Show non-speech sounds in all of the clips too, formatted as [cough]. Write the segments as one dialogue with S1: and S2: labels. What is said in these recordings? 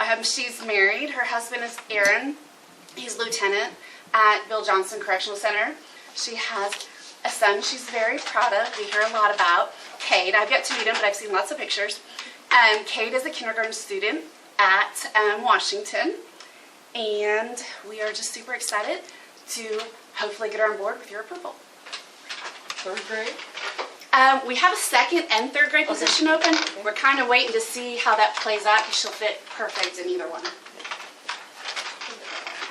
S1: Um, she's married. Her husband is Aaron. He's lieutenant at Bill Johnson Correctional Center. She has a son she's very proud of. We hear a lot about Cade. I've yet to meet him, but I've seen lots of pictures. Um, Cade is a kindergarten student at um, Washington, and we are just super excited to hopefully get her on board with your purple.
S2: Third grade?
S1: Um, we have a second and third grade position open. We're kind of waiting to see how that plays out because she'll fit perfect in either one.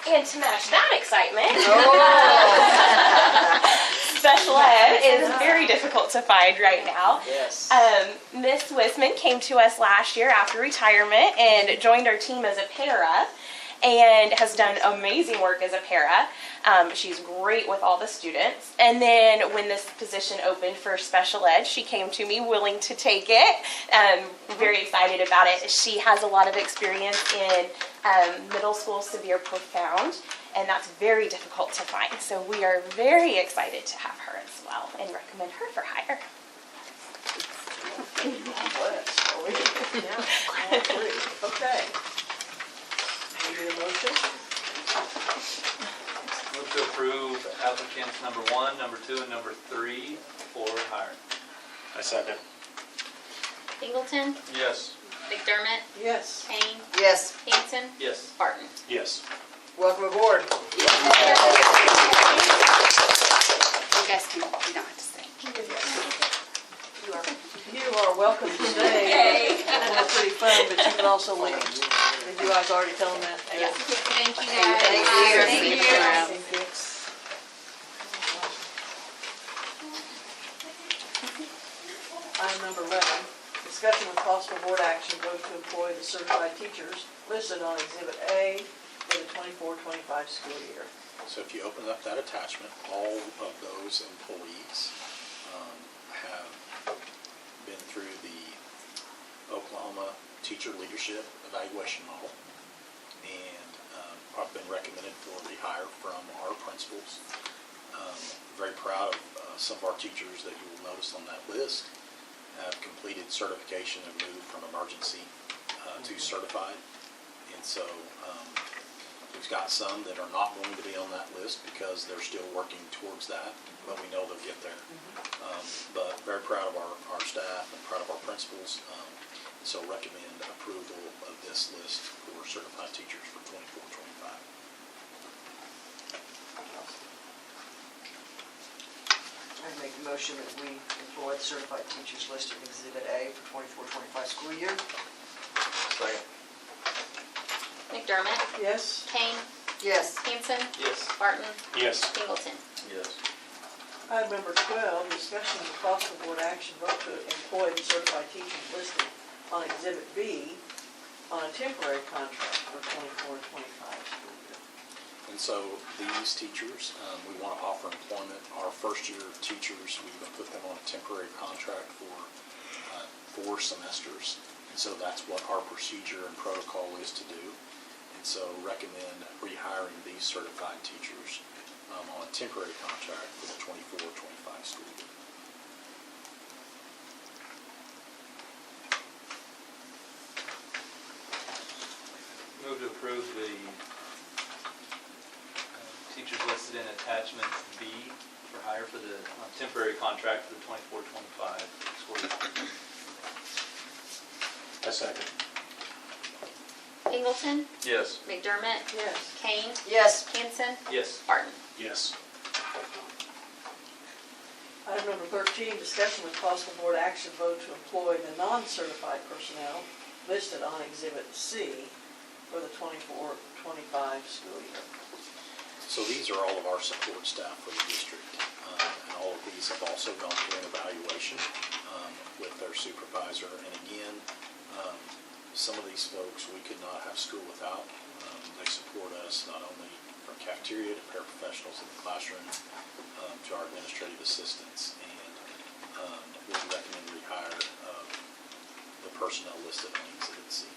S3: And to match that excitement, [laughs] special ed is very difficult to find right now.
S2: Yes.
S3: Um, Miss Wisman came to us last year after retirement and joined our team as a para and has done amazing work as a para. Um, she's great with all the students. And then when this position opened for special ed, she came to me willing to take it. Um, very excited about it. She has a lot of experience in um, middle school severe profound, and that's very difficult to find. So we are very excited to have her as well and recommend her for hire.
S2: Bless, are we? All three. Okay. Need a motion?
S4: Move to approve applicants number one, number two, and number three for hire.
S5: I second.
S6: Singleton,
S4: Yes.
S6: McDermott,
S2: Yes.
S6: Kane,
S2: Yes.
S6: Hanson,
S4: Yes.
S6: Barton.
S5: Yes.
S2: Welcome aboard.
S1: You guys can, you don't have to stay.
S2: You are welcome to stay. It's pretty fun, but you can also leave. Did you guys already tell them that?
S6: Thank you
S1: guys.
S6: guys.
S1: Thank you.
S2: Item number 11, discussion with possible board action, vote to employ the certified teachers listed on Exhibit A for the 24-25 school year.
S5: So if you open up that attachment, all of those employees um, have been through the Oklahoma Teacher Leadership Evaluation Model and um, have been recommended for rehire from our principals. Um, Very proud of uh, some of our teachers that you will notice on that list have completed certification and moved from emergency uh, to certified. And so um, We've got some that are not going to be on that list because they're still working towards that, but we know they'll get there. Um, But very proud of our, our staff and proud of our principals. um, So recommend approval of this list for certified teachers for 24, 25.
S2: I make a motion that we employ the certified teachers listed in Exhibit A for 24-25 school year.
S4: Second.
S6: McDermott,
S2: Yes.
S6: Kane,
S2: Yes.
S6: Hanson,
S4: Yes.
S6: Barton,
S5: Yes.
S6: Singleton.
S4: Yes.
S2: Item number 12, discussion of possible board action, vote to employ the certified teachers listed on Exhibit B on a temporary contract for 24-25 school year.
S5: And so these teachers, um, we want to offer employment, our first-year teachers, we're going to put them on a temporary contract for uh, four semesters. And so that's what our procedure and protocol is to do. And so recommend rehiring these certified teachers um, on a temporary contract for the 24, 25 school year.
S4: Move to approve the uh, teachers listed in attachment B for hire for the uh, temporary contract for the 24, 25 school year.
S5: I second.
S6: Singleton,
S4: Yes.
S6: McDermott,
S2: Yes.
S6: Kane,
S2: Yes.
S6: Hanson,
S4: Yes.
S6: Barton.
S5: Yes.
S2: Item number 13, discussion with possible board action, vote to employ the non-certified personnel listed on Exhibit C for the 24-25 school year.
S5: So these are all of our support staff for the district. uh, And all of these have also gone through an evaluation um, with their supervisor. And again, um, some of these folks, we could not have school without. Um, They support us not only from cafeteria to paraprofessionals in the classroom um, to our administrative assistants. And um, we recommend rehire of the personnel uh, listed on Exhibit C.